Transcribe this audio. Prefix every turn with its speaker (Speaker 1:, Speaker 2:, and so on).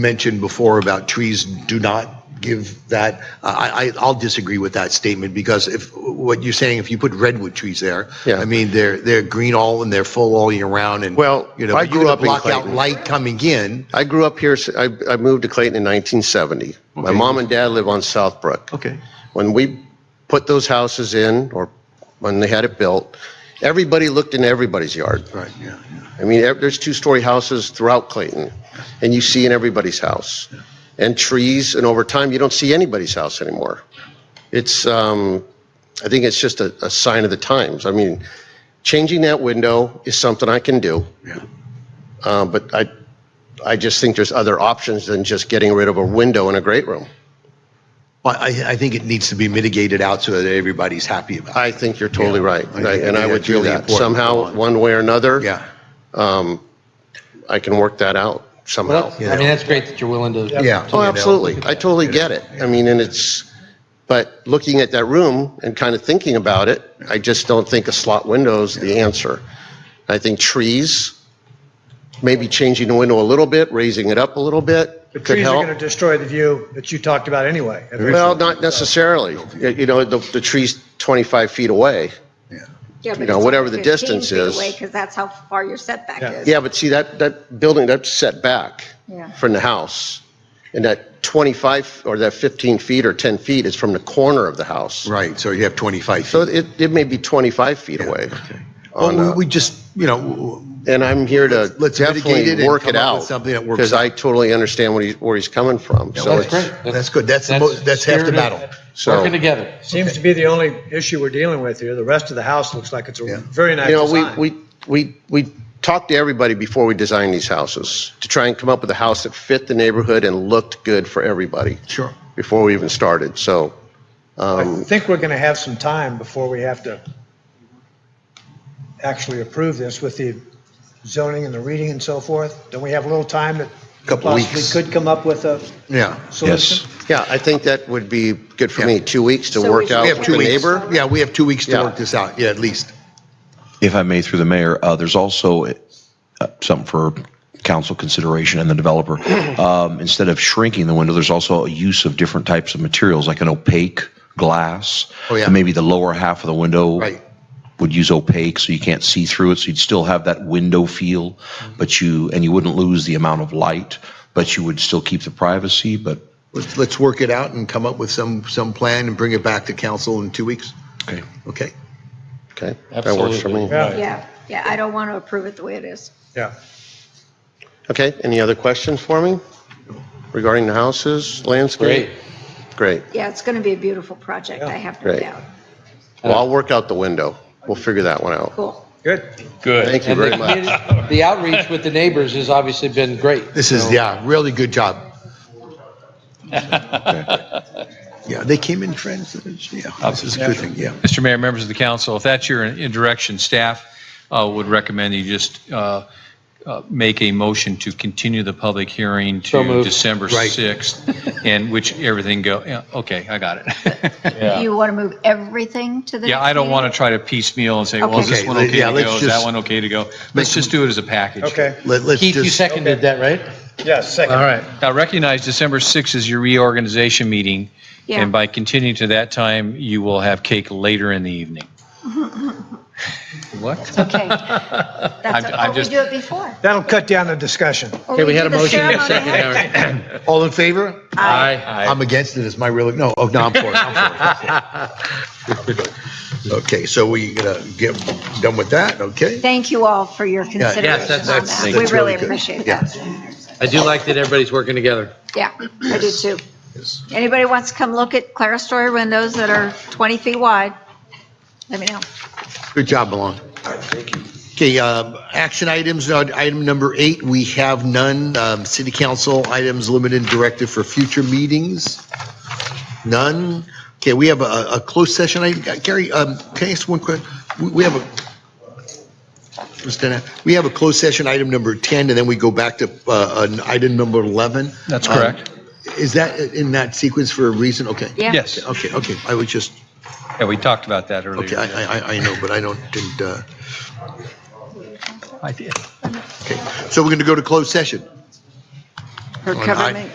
Speaker 1: mentioned before about trees do not give that, I, I, I'll disagree with that statement because if, what you're saying, if you put redwood trees there,
Speaker 2: Yeah.
Speaker 1: I mean, they're, they're green all and they're full all year round and.
Speaker 2: Well,
Speaker 1: you know,
Speaker 2: I
Speaker 1: but you
Speaker 2: grew
Speaker 1: could
Speaker 2: up in
Speaker 1: Block out
Speaker 2: Clayton.
Speaker 1: light coming in.
Speaker 2: I grew up here, I, I moved to Clayton in 1970. My
Speaker 1: Okay.
Speaker 2: mom and dad live on Southbrook.
Speaker 1: Okay.
Speaker 2: When we put those houses in, or when they had it built, everybody looked in everybody's yard.
Speaker 1: Right, yeah, yeah.
Speaker 2: I mean, ev- there's two-story houses throughout Clayton, and you see in everybody's house. And trees, and over time, you don't see anybody's house anymore. It's, um, I think it's just a, a sign of the times. I mean, changing that window is something I can do.
Speaker 1: Yeah.
Speaker 2: Uh, but I, I just think there's other options than just getting rid of a window in a great room.
Speaker 1: But I, I think it needs to be mitigated out so that everybody's happy about it.
Speaker 2: I think you're totally
Speaker 1: Yeah,
Speaker 2: right,
Speaker 1: I think-
Speaker 2: right?
Speaker 1: I
Speaker 2: and I
Speaker 1: think
Speaker 2: would
Speaker 1: that's really
Speaker 2: do that
Speaker 1: important.
Speaker 2: somehow, one way or another.
Speaker 1: Yeah.
Speaker 2: Um, I can work that out somehow.
Speaker 3: Well, I mean, that's great that you're willing to.
Speaker 1: Yeah.
Speaker 2: Oh, absolutely. I totally get it. I mean, and it's, but looking at that room and kind of thinking about it, I just don't think a slot window is the answer. I think trees, maybe changing the window a little bit, raising it up a little bit
Speaker 4: The
Speaker 2: could
Speaker 4: trees are
Speaker 2: help.
Speaker 4: going to destroy the view that you talked about anyway.
Speaker 2: Well, not necessarily. You you know, the, the tree's 25 feet away.
Speaker 5: Yeah, but
Speaker 2: know,
Speaker 5: it's
Speaker 2: whatever
Speaker 5: only
Speaker 2: the
Speaker 5: 15
Speaker 2: distance
Speaker 5: feet
Speaker 2: is.
Speaker 5: away, 'cause that's how far your setback
Speaker 4: Yeah.
Speaker 5: is.
Speaker 2: Yeah, but see, that, that building, that's set back
Speaker 5: Yeah.
Speaker 2: from the house. And that 25 or that 15 feet or 10 feet is from the corner of the house.
Speaker 1: Right, so you have 25
Speaker 2: So
Speaker 1: feet. uh,
Speaker 2: it, it may be 25 feet away. on
Speaker 1: Well,
Speaker 2: a-
Speaker 1: we- we just, you know,
Speaker 2: And I'm here to
Speaker 1: Let's- let's mitigate it
Speaker 2: definitely
Speaker 1: and
Speaker 2: work
Speaker 1: come
Speaker 2: it
Speaker 1: up with
Speaker 2: out.
Speaker 1: something that works
Speaker 2: Because I totally understand what he, where he's coming from. So
Speaker 1: that's
Speaker 2: it's-
Speaker 1: great. That's good. That's the most- that's half the
Speaker 3: spirited-
Speaker 1: battle.
Speaker 2: So-
Speaker 3: Working together.
Speaker 4: Seems to be the only issue we're dealing with here. The rest of the house looks like it's
Speaker 1: Yeah.
Speaker 4: a very nice
Speaker 2: You know, we,
Speaker 4: design.
Speaker 2: we, we, we talked to everybody before we designed these houses to try and come up with a house that fit the neighborhood and looked good for everybody
Speaker 1: Sure.
Speaker 2: before we even started. So,
Speaker 1: Um,
Speaker 4: I think we're going to have some time before we have to actually approve this with the zoning and the reading and so forth. Don't we have a little time that
Speaker 1: Couple
Speaker 4: possibly
Speaker 1: weeks.
Speaker 4: could come up with a
Speaker 1: Yeah.
Speaker 4: solution?
Speaker 2: yeah, I think that would be good for
Speaker 1: Yeah.
Speaker 2: me, two weeks to
Speaker 5: So we
Speaker 2: work
Speaker 5: should
Speaker 2: out
Speaker 1: We
Speaker 2: with
Speaker 1: have
Speaker 2: the
Speaker 1: two weeks.
Speaker 2: neighbor.
Speaker 1: Yeah, we have two weeks to
Speaker 2: Yeah.
Speaker 1: work this out, yeah, at least.
Speaker 6: If I may, through the mayor, uh, there's also uh, something for council consideration and the developer. Um, Instead of shrinking the window, there's also a use of different types of materials, like an opaque glass.
Speaker 1: Oh, yeah.
Speaker 6: And Maybe the lower half of the window
Speaker 1: Right.
Speaker 6: would use opaque, so you can't see through it, so you'd still have that window feel, but you, and you wouldn't lose the amount of light, but you would still keep the privacy, but,
Speaker 1: Let's, let's work it out and come up with some, some plan and bring it back to council in two weeks,
Speaker 6: okay.
Speaker 1: okay?
Speaker 2: Okay, that works for me.
Speaker 5: Yeah, yeah, I don't want to approve it the way it is.
Speaker 4: Yeah.
Speaker 2: Okay, any other questions for me regarding the houses, landscape?
Speaker 3: Great.
Speaker 2: Great.
Speaker 5: Yeah, it's going to be a beautiful project, I have no
Speaker 2: Right.
Speaker 5: doubt.
Speaker 2: Well, I'll work out the window. We'll figure that one out.
Speaker 5: Cool.
Speaker 4: Good.
Speaker 2: Thank you
Speaker 3: And the
Speaker 2: very much.
Speaker 3: community- The outreach with the neighbors has obviously been great.
Speaker 1: This is, yeah, really good job. Yeah, they came in friends, yeah, this is a good thing, yeah.
Speaker 7: Mr. Mayor, members of the council, if that's your in- direction, staff uh, would recommend you just uh, uh, make a motion to continue the public hearing
Speaker 3: So
Speaker 7: to
Speaker 3: moved.
Speaker 7: December
Speaker 1: Right.
Speaker 7: 6th, and which everything go, yeah, okay, I got it.
Speaker 5: You want to move everything to the
Speaker 7: Yeah,
Speaker 5: next
Speaker 7: I don't
Speaker 5: meeting?
Speaker 7: want to try to piecemeal and say, well, is this
Speaker 1: Okay.
Speaker 7: one
Speaker 1: Okay,
Speaker 7: okay to
Speaker 1: yeah, let's
Speaker 7: go? Is that
Speaker 1: just-
Speaker 7: one okay to go? Let's just do it as a package.
Speaker 4: Okay.
Speaker 1: Let, let's
Speaker 3: Keith, you
Speaker 1: just,
Speaker 3: seconded that, right?
Speaker 4: Yes,
Speaker 3: All
Speaker 4: second.
Speaker 3: right.
Speaker 7: Now, recognize December 6th is your reorganization meeting,
Speaker 5: Yeah.
Speaker 7: and by continuing to that time, you will have cake later in the evening. What?
Speaker 5: Okay. That's, oh,
Speaker 7: I'm
Speaker 5: we
Speaker 7: just-
Speaker 5: do it before.
Speaker 4: That'll cut down the discussion.
Speaker 5: Or
Speaker 3: Okay, we
Speaker 5: do
Speaker 3: had a
Speaker 5: the
Speaker 3: motion and a
Speaker 5: ceremony
Speaker 3: second.
Speaker 5: after.
Speaker 3: Aaron.
Speaker 1: all in favor?
Speaker 3: Aye.
Speaker 1: I'm against it, it's my real, no, oh, no, I'm for it, I'm for it. I'm for it. Okay, so we gonna get done with that, okay?
Speaker 5: Thank you all for your
Speaker 3: Yes,
Speaker 5: consideration
Speaker 3: that's-
Speaker 5: on
Speaker 1: that's-
Speaker 5: that. We
Speaker 1: that's
Speaker 5: really
Speaker 1: really good.
Speaker 5: appreciate
Speaker 1: Yeah.
Speaker 5: that.
Speaker 3: I do like that everybody's working together.
Speaker 5: Yeah, I do too. Anybody wants to come look at Claristory windows that are 20 feet wide, let me know.
Speaker 1: Good job, Milan. Okay, um, action items, uh, item number eight, we have none. Um, City Council items limited directive for future meetings, none. Okay, we have a a closed session item. Gary, um, can I ask one quick? We- We have a, Mr. Dennett, we have a closed session item number 10, and then we go back to uh, an item number 11.
Speaker 7: That's
Speaker 1: Um,
Speaker 7: correct.
Speaker 1: Is that in that sequence for a reason? Okay.
Speaker 5: Yeah.
Speaker 7: Yes.
Speaker 1: Okay, okay, I was just,
Speaker 7: Yeah, we talked about that earlier.
Speaker 1: okay, I, I- I, I know, but I don't, didn't, uh,
Speaker 7: I did.
Speaker 1: okay. So we're going to go to closed session.
Speaker 5: Or
Speaker 1: On
Speaker 5: cover
Speaker 1: I-
Speaker 5: me.